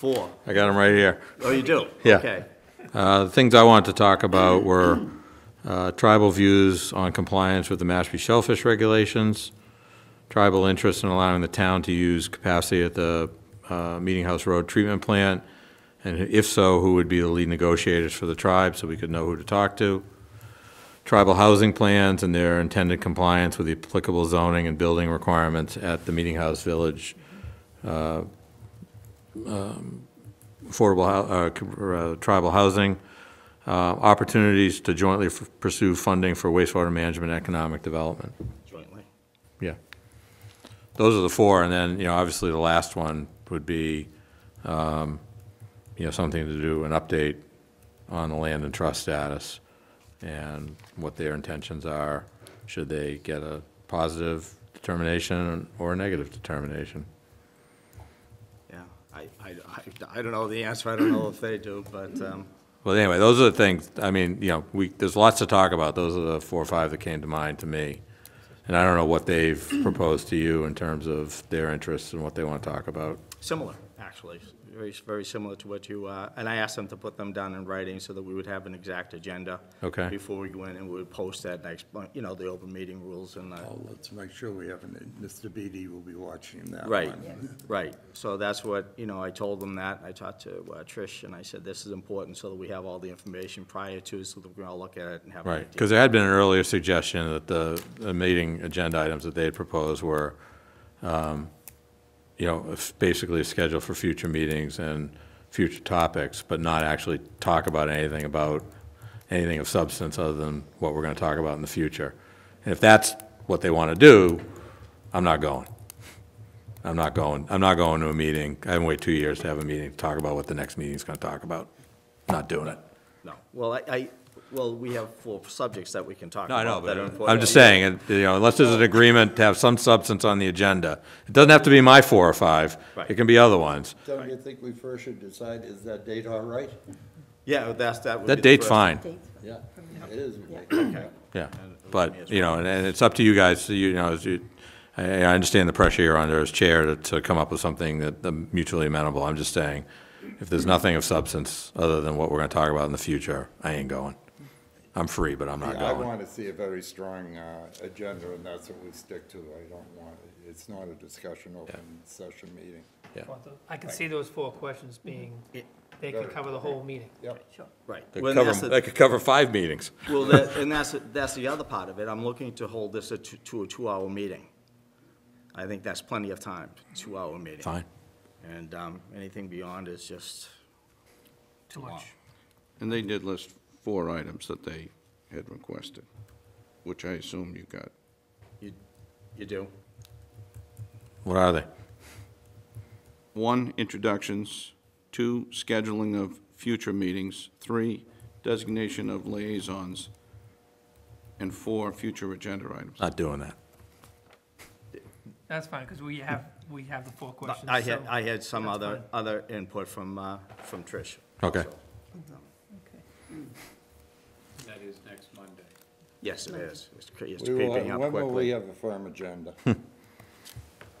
Four. I got them right here. Oh, you do? Yeah. Okay. Uh, The things I wanted to talk about were uh, tribal views on compliance with the Mashpee Shellfish Regulations, tribal interest in allowing the town to use capacity at the uh, Meeting House Road Treatment Plant, and if so, who would be the lead negotiators for the tribe, so we could know who to talk to, tribal housing plans and their intended compliance with the applicable zoning and building requirements at the Meeting House Village uh, um, affordable, hou- uh, co- uh, tribal housing, uh, opportunities to jointly f- pursue funding for wastewater management and economic development. Jointly. Yeah. Those are the four, and then, you know, obviously the last one would be, um, you know, something to do, an update on the land and trust status and what their intentions are, should they get a positive determination or a negative determination. Yeah. I, I, I- I don't know the answer. I don't know if they do, but, um, Well, anyway, those are the things, I mean, you know, we, there's lots to talk about. Those are the four or five that came to mind to me. And I don't know what they've proposed to you in terms of their interests and what they want to talk about. similar, actually. Very, very similar to what you, uh, and I asked them to put them down in writing so that we would have an exact agenda. Okay. Before we go in and we would post that next, month, you know, the open meeting rules and, Oh. uh, Well, let's make sure we haven't, Mr. Beatty will be watching that one. Right, right. So that's what, you know, I told them that. I talked to uh, Trish, and I said, this is important so that we have all the information prior to, so that we can all look at it and have an idea. Right, because there had been an earlier suggestion that the, the meeting agenda items that they had proposed were, um, you know, f- basically a schedule for future meetings and future topics, but not actually talk about anything about, anything of substance other than what we're going to talk about in the future. And if that's what they want to do, I'm not going. I'm not going, I'm not going to a meeting. I haven't waited two years to have a meeting to talk about what the next meeting's going to talk about. Not doing it. No, well, I, I, well, we have four subjects that we can talk No, I about. know, that are but important. I'm just saying, and, you know, unless there's an agreement to have some substance on the agenda. It doesn't have to be my four or five. Right. It can be other ones. Don't you think we first should decide, is that date all right? Yeah, that's, that would be That the date's first- fine, Yeah, it is. yeah. it would be as But, you know, and- and it's up to you guys, so you know, as you, I, I understand the pressure you're under as chair to, to come up with something that um, mutually amenable. I'm just saying, if there's nothing of substance other than what we're gonna talk about in the future, I ain't going. I'm free, but I'm not I going. want to see a very strong uh, agenda, and that's what we stick to. I don't want, it's not a discussion open session meeting. I can see those four questions being, they could cover the whole meeting. Yep. Right. That Well, and cover- that's the- That could cover five meetings. Well, that, and that's, that's the other part of it. I'm looking to hold this a two- to a two-hour meeting. I think that's plenty of time, two-hour meeting. Fine. And, um, anything beyond is just too long. And they did list four items that they had requested, which I assume you got. You, you do? What are they? One, introductions. Two, scheduling of future meetings. Three, designation of liaisons. And four, future agenda items. Not doing that. That's fine, because we have, we have the four questions. I had, so- I had some That's other, fine. other input from, uh, from Trish. Okay. That is next Monday. Yes, it is. It's cre- It's We will, creeping up when will we quickly. have a firm agenda?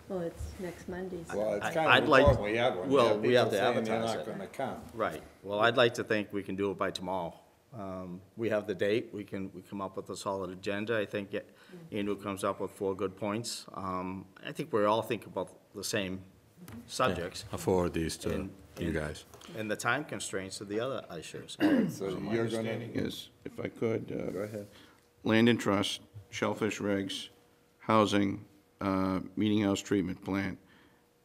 Well, it's next Monday, so. Well, it's I- kind I'd of like- important we have one. well, have we have people to saying they're advertise not it. gonna come. Right. Well, I'd like to think we can do it by tomorrow. Um, we have the date, we can, we come up with a solid agenda. I think it- Mm-hmm. Andrew comes up with four good points. Um, I think we all think about the same subjects I'll forward these to And- you guys. and the time constraints of the other issues. So My you're gonna, understanding is, if I could. Go ahead. Land and trust, shellfish regs, housing, uh, meeting house treatment plant,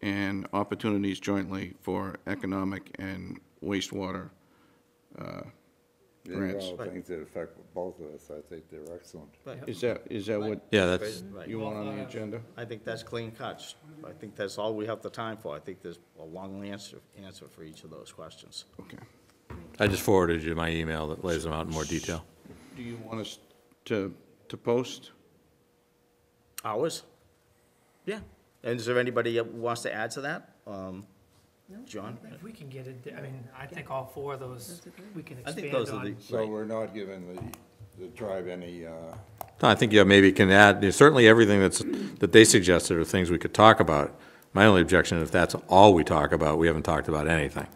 and opportunities jointly for economic and wastewater. these are all Grants. things that affect both of us. I think they're excellent. Is that, is that what Yeah, that's, Right. you want on the agenda? I think that's clean cuts. I think that's all we have the time for. I think there's a long answer, answer for each of those questions. Okay. I just forwarded you my email that lays them out in more detail. Do you want us to, to post? Hours? Yeah. And is there anybody that wants to add to that? Um, John? If we can get it, I mean, I think all four of those, we can I think expand those are the, on. So we're not giving the, the tribe any, uh, No, I think, yeah, maybe you can add, certainly everything that's, that they suggested are things we could talk about. My only objection, if that's all we talk about, we haven't talked about anything.